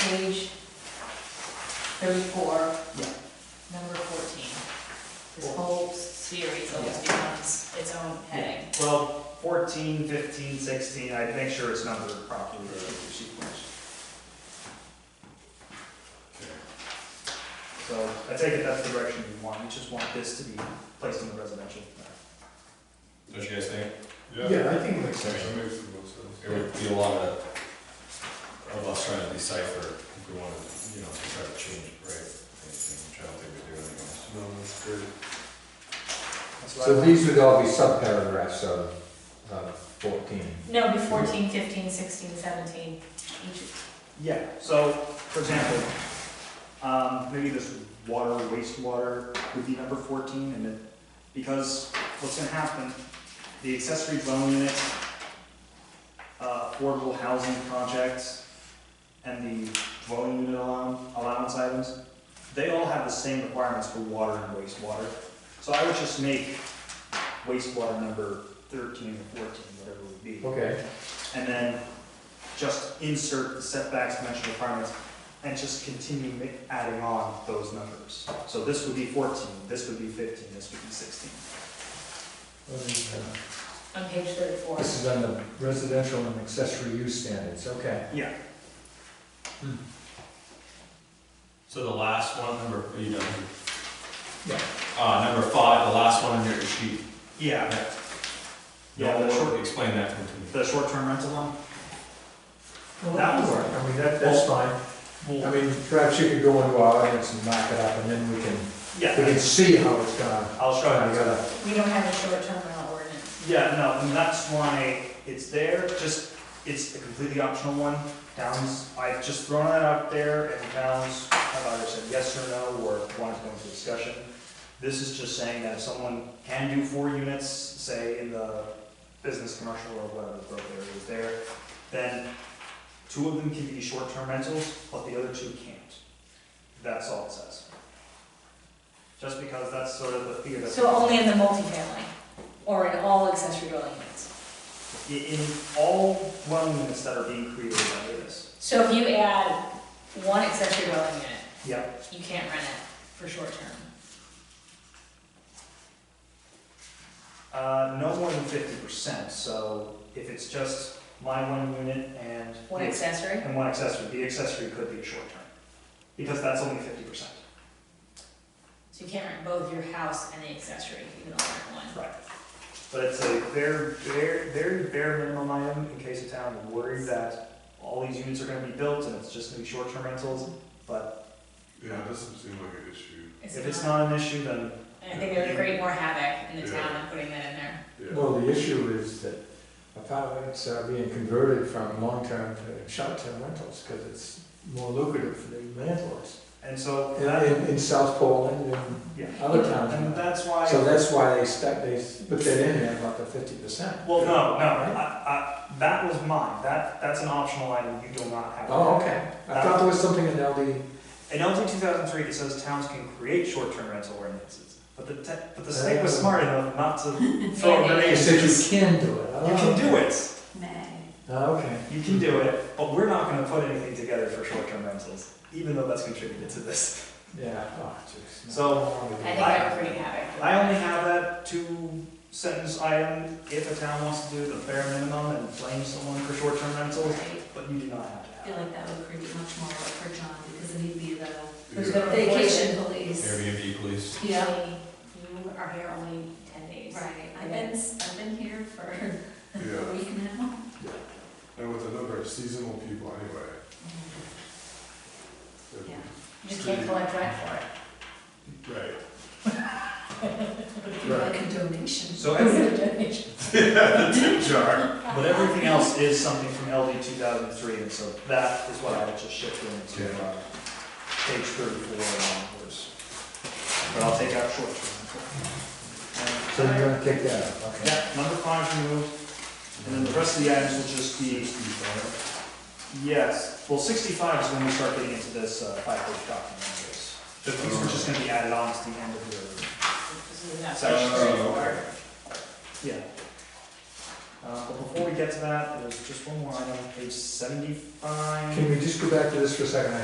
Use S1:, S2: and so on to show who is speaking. S1: page thirty-four,
S2: Yeah.
S1: number fourteen. This whole series almost becomes its own heading.
S3: Well, 14, 15, 16, I'd make sure it's numbered properly.
S2: Or sequence.
S3: So I take it that's the direction you want, you just want this to be placed in the residential.
S4: Don't you guys think?
S5: Yeah, I think it makes sense.
S4: It
S5: makes the most sense.
S4: would be a lot of, of us trying to decipher if we wanted, you know, to try to change it, right? Which I don't think we do anyways.
S5: No, that's great.
S3: That's what I
S6: So
S3: want.
S6: these would all be subparagraphs of, of fourteen.
S1: No, it'd be fourteen, fifteen, sixteen, seventeen, each,
S3: Yeah, so, for example, um, maybe this water, wastewater would be number fourteen, and it, because what's gonna happen, the accessory dwelling unit, uh, affordable housing projects, and the dwelling unit allow- allowance items, they all have the same requirements for water and wastewater. So I would just make wastewater number thirteen or fourteen, whatever it would be
S6: Okay.
S3: and then just insert the setbacks, dimensional requirements, and just continue ma- adding on those numbers. So this would be fourteen, this would be fifteen, this would be sixteen.
S1: on page thirty-four.
S6: This is on the residential and accessory use standards, okay.
S3: Yeah,
S4: So the last one, number, you know.
S6: Yeah.
S4: Uh, number five, the last one on your sheet.
S3: yeah,
S4: Yeah,
S3: Yeah, the short-
S4: explain that one to me.
S3: the short-term rental one,
S6: Well, that would work, I mean, that, that's fine. I
S3: well,
S6: mean, perhaps you could go into our audience and knock it up, and then we can, we
S3: yeah,
S6: can see how it's gonna,
S3: I'll
S6: how
S3: show
S6: you
S3: you.
S6: gotta,
S1: We don't have a short-term rental ordinance.
S3: Yeah, no, and that's why it's there, just, it's a completely optional one. Towns, I've just thrown that out there, and towns have either said yes or no, or wanted to go into discussion. This is just saying that if someone can do four units, say in the business, commercial, or whatever the growth area is there, then two of them can be short-term rentals, but the other two can't. That's all it says. Just because that's sort of the fear that.
S1: So only in the multifamily, or in all accessory dwelling units.
S3: in, in all dwelling units that are being created under this.
S1: So if you add one accessory dwelling unit,
S3: Yep.
S1: you can't rent it for short-term.
S3: Uh, no more than fifty percent, so if it's just my one unit and.
S1: One accessory?
S3: And one accessory, the accessory could be a short term, because that's only fifty percent.
S1: So you can't rent both your house and the accessory, you can only rent one.
S3: Right. But it's a very, very, very bare minimum item in case a town is worried that all these units are gonna be built and it's just gonna be short term rentals, but
S5: Yeah, it doesn't seem like an issue.
S3: if it's not an issue, then,
S1: And I think it would create more havoc in the town than putting that in there.
S5: Yeah,
S6: well, the issue is that apartments are being converted from long-term to short-term rentals, because it's more lucrative for the landlords.
S3: and so
S6: In,
S3: that,
S6: in- in South Poland and
S3: yeah.
S6: other towns.
S3: And that's why.
S6: So that's why they stuck, they put that in there about the fifty percent.
S3: Well, no, no, I, I, that was mine, that, that's an optional item, you do not have. to
S6: Oh,
S3: have.
S6: okay. I thought there was something in LD.
S3: In LT two thousand three, it says towns can create short-term rental ordinances, but the, te- but the state was smart enough not to
S1: Yeah,
S3: throw a
S1: they-
S6: It
S3: grenade.
S6: said you can do it.
S3: You can do it,
S6: Oh, okay.
S3: you can do it, but we're not gonna put anything together for short-term rentals, even though that's contributed to this.
S6: Yeah. Oh, jeez.
S3: So,
S1: I think that would create havoc.
S3: I only have that two sentence item, if a town wants to do the bare minimum and blame someone for short-term rentals,
S7: I
S3: but you do not have to have.
S7: feel like that would create much more work for John because then he'd be the
S1: Who's
S5: yeah.
S1: gonna enforce it?
S7: vacation police.
S4: Airbnb police.
S7: Yeah,
S1: Actually, You are here only ten days.
S7: right. I've been, I've been here for a
S5: Yeah.
S7: week now.
S5: And with the number of seasonal people anyway. it'd be-
S7: Yeah.
S1: You just can't collect rent for it.
S5: Right.
S7: People like a donation.
S3: So
S1: It's a donation.
S5: Tip jar.
S3: But everything else is something from LD two thousand three, and so that is what I would just shift into, uh, page thirty-four and onwards. But I'll take out short term.
S6: So you're gonna kick that out, okay.
S3: Yeah, number five removed, and then the rest of the items will just be, yes, well, sixty-five is when we start getting into this, uh, five-page document. anyways. But these were just gonna be added on to the end of your,
S1: This is not
S3: Section
S1: statutory
S4: three.
S1: for-
S3: yeah. Uh, but before we get to that, there's just one more item, page seventy-five.
S6: Can we just go back to this for a second?